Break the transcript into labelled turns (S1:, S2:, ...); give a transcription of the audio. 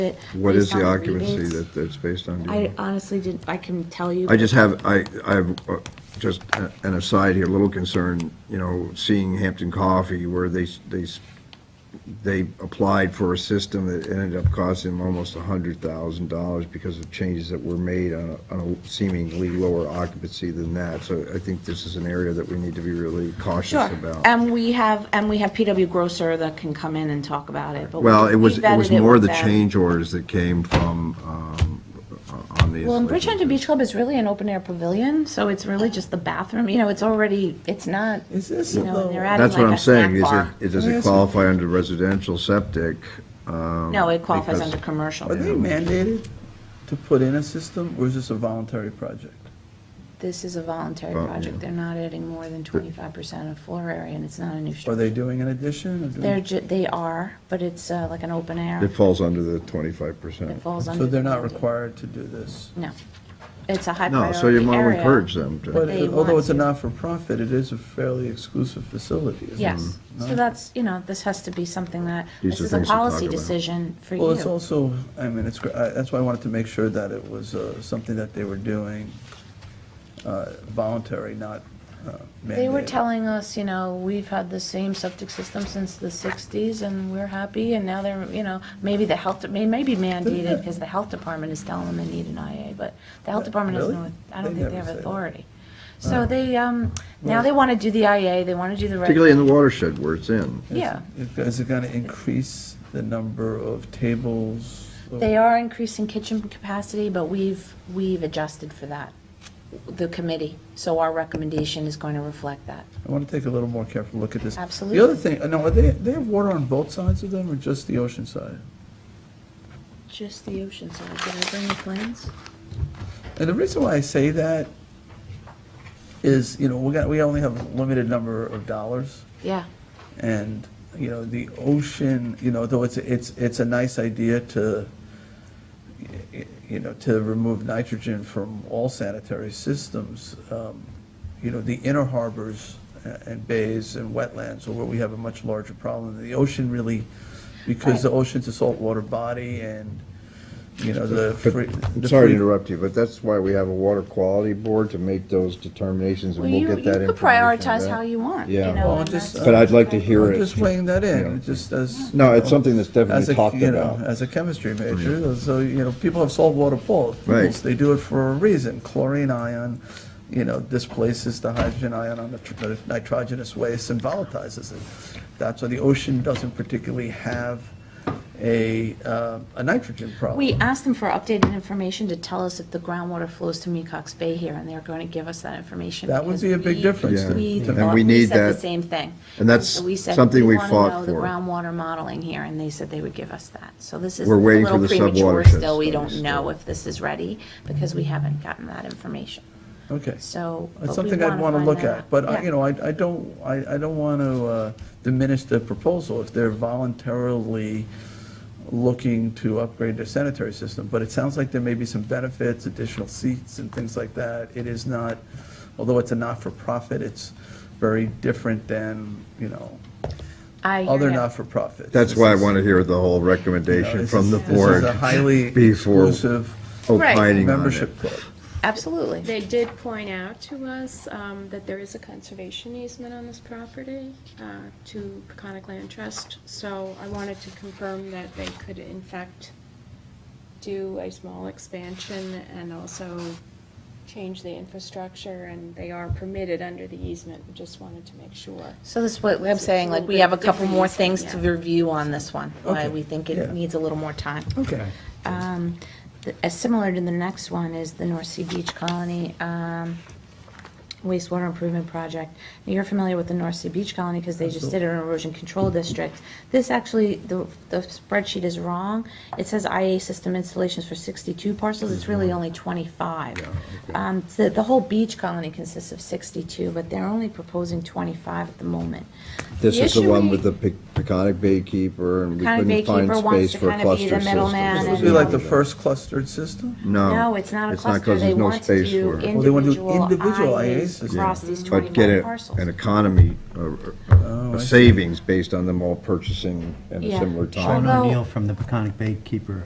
S1: it.
S2: What is
S1: based on
S2: the occupancy
S1: rebates.
S2: that, that's based on? do you
S1: I
S2: know?
S1: honestly didn't, I can tell you.
S2: I just have, I, I have uh, just a- an aside here, a little concern, you know, seeing Hampton Coffee where they, s- they, s- they applied for a system that ended up costing them almost a hundred thousand dollars because of changes that were made on a, on a seemingly lower occupancy than that. So I think this is an area that we need to be really
S1: Sure,
S2: cautious about.
S1: and we have, and we have PW Grosser that can come in and talk about it, but.
S2: Well,
S1: we-
S2: it was,
S1: we
S2: it was
S1: vetted
S2: more
S1: with
S2: the
S1: them.
S2: change orders that came from, um, uh, on the.
S3: Well, and
S2: installation.
S3: Bridgehampton Beach Club is really an open air pavilion,
S1: So it's really just the bathroom, you know, it's already,
S3: it's not,
S4: Is this uh,
S1: you know, and they're
S4: the,
S1: adding
S2: That's what
S1: like
S2: I'm
S1: a snack
S2: saying, is it,
S1: bar.
S2: it, does
S4: Let me
S2: it
S4: ask you-
S2: qualify under residential septic? um,
S1: No, it qualifies
S2: Oh, because-
S1: under commercial.
S4: are they mandated to put in a system, or is this a voluntary project?
S3: this is a voluntary
S2: Oh,
S3: project,
S2: yeah.
S3: they're not adding more than twenty-five percent of floor area, and it's not a new
S4: Are
S3: structure.
S4: they doing an addition or doing?
S3: They're ju, they are, but it's uh, like an open air,
S2: It falls under the twenty-five
S3: it
S2: percent.
S3: falls under.
S4: So they're
S3: the-
S4: not required to do this?
S3: No, it's a high
S2: No,
S3: priority
S2: so you want to
S3: area.
S2: encourage them
S4: But
S2: to,
S3: they
S4: although
S3: want
S4: it's a
S3: to.
S4: not-for-profit, it is a fairly exclusive facility, isn't it?
S3: Yes, so
S4: No?
S3: that's, you know, this has to be something that,
S2: Mm-hmm. These
S3: this
S2: are
S3: is a
S2: things to talk
S3: policy
S2: about.
S3: decision for you.
S4: Well, it's also, I mean, it's, gr- I- that's why I wanted to make sure that it was uh, something that they were doing uh, voluntary, not uh, mandated.
S3: They were telling us, you know, we've had the same septic system since the 60s, and we're happy, and now they're, you know, maybe the health, may maybe mandated, because the health department is telling them they need an IA, but the health department doesn't,
S4: Really?
S3: know- I don't
S4: They
S3: think they
S4: never
S3: have
S4: say that.
S3: authority. So they, um, now they want to do the IA, they want to do the reg,
S2: particularly in the watershed where it's in.
S4: Is-
S3: yeah.
S4: is- Is it going to increase the number of tables?
S3: They are increasing kitchen capacity, but we've, we've adjusted for that, the committee, so our recommendation is going to reflect that.
S4: I want to take a little more careful look at this.
S3: Absolutely.
S4: The other thing, uh, now, are they, they have water on both sides of them, or just the ocean side?
S3: Just the ocean side, did I bring the plans?
S4: And the reason why I say that is, you know, we got, we only have a limited number of dollars.
S3: Yeah.
S4: And, you know, the ocean, you know, though it's, it's, it's a nice idea to, y- you know, to remove nitrogen from all sanitary systems, um, you know, the inner harbors a- and bays and wetlands are where we have a much larger problem. The ocean really, because the ocean's a saltwater body and, you know, the. free- the
S2: Sorry to
S4: free-
S2: interrupt you, but that's why we have a water quality board to make those determinations
S3: Well,
S2: and we'll
S3: you,
S2: get that
S3: you
S2: information.
S3: could prioritize
S2: back.
S3: how you want, you
S2: Yeah.
S3: know,
S4: Well,
S3: and
S4: just,
S3: that's-
S2: But I'd like to hear
S4: I'm
S2: it.
S4: just weighing that
S2: Yeah.
S4: in, just as.
S2: No,
S4: you
S2: it's
S4: know,
S2: something that's definitely
S4: as a-
S2: talked
S4: you know,
S2: about.
S4: As a chemistry major, so, you know, people have saltwater pools.
S2: Right.
S4: They do it for a reason, chlorine ion, you know, displaces the hydrogen ion on the tr- the nitrogenous waste and volatilizes it. That's why the ocean doesn't particularly have a, uh, a nitrogen problem.
S3: we asked them for updated information to tell us if the groundwater flows to Mecox Bay here, and they're going to give us that information.
S4: That would
S3: because
S4: be a big
S3: we-
S4: difference.
S2: Yeah.
S3: We
S2: And
S3: thought, we
S2: we need
S3: said the
S2: that.
S3: same thing.
S2: And that's
S3: So we said,
S2: something we
S3: wanna
S2: fought
S3: know The
S2: for.
S3: groundwater modeling here, and they said they would give us that. So this is a
S2: We're waiting for
S3: little
S2: the
S3: premature
S2: subwatershed
S3: still, we don't
S2: studies
S3: know
S2: still.
S3: if this is ready, because we haven't gotten that information,
S4: Okay.
S3: so. but we
S4: It's something I'd
S3: wanna
S4: want to
S3: find
S4: look
S3: that out.
S4: at, but, I-
S3: Yeah.
S4: you know, I, I don't, I, I don't want to uh, diminish the proposal if they're voluntarily looking to upgrade their sanitary system, but it sounds like there may be some benefits, additional seats and things like that. It is not, although it's a not-for-profit, it's very different than, you know,
S3: I hear
S4: other
S3: ya.
S4: not-for-profits.
S2: That's
S4: This
S2: why I
S4: is-
S2: want to hear the whole
S4: you know,
S2: recommendation
S4: this
S2: from
S4: is-
S2: the
S4: This
S2: board
S4: is a highly
S2: before
S4: exclusive
S2: opining on it.
S4: membership club.
S3: Absolutely.
S5: They did point out to us um, that there is a conservation easement on this property uh, to Peconic Land Trust, so I wanted to confirm that they could in fact do a small expansion and also change the infrastructure, and they are permitted under the easement, just wanted to make sure.
S3: So this is what I'm
S5: It's a
S3: saying, like,
S5: little
S3: we
S5: bit
S3: have a couple
S5: different
S3: more
S5: easement,
S3: things to
S5: yeah.
S3: review on this one, why
S4: Okay,
S3: we think
S4: yeah.
S3: it needs a little more time.
S4: Okay.
S3: Um, th- uh, Similar to the next one is the North Sea Beach Colony um, wastewater improvement project. Now, You're familiar with the North Sea Beach Colony because they just did an erosion control district. This actually, the the spreadsheet is wrong. It says IA system installations for 62 parcels, it's really only 25. Um, so The whole beach colony consists of 62, but they're only proposing 25 at the moment.
S2: This
S3: The
S2: is the
S3: issue
S2: one
S3: we-
S2: with the Pe- Peconic Baykeeper and
S3: Peconic
S2: we couldn't find
S3: Baykeeper wants
S2: space
S3: to
S2: for a
S3: kinda be the
S2: cluster system.
S3: middleman
S2: so
S3: and-
S4: This
S2: it's
S4: would be like the
S2: not-
S4: first clustered system?
S2: No.
S3: No, it's not a cluster.
S2: 'cause
S3: They
S2: there's no
S3: want to
S2: space
S3: do
S2: for it.
S4: Well, they want to do
S3: individual
S4: individual
S3: IAs
S4: IAs.
S3: across these
S2: But get
S3: 21
S2: a-
S3: parcels.
S2: an economy, uh,
S4: Oh, I
S2: a
S4: see.
S2: savings based on them all purchasing at a
S3: Yeah.
S2: similar time.
S3: Sure.
S6: Sean
S3: Although-
S6: O'Neill from the Peconic Baykeeper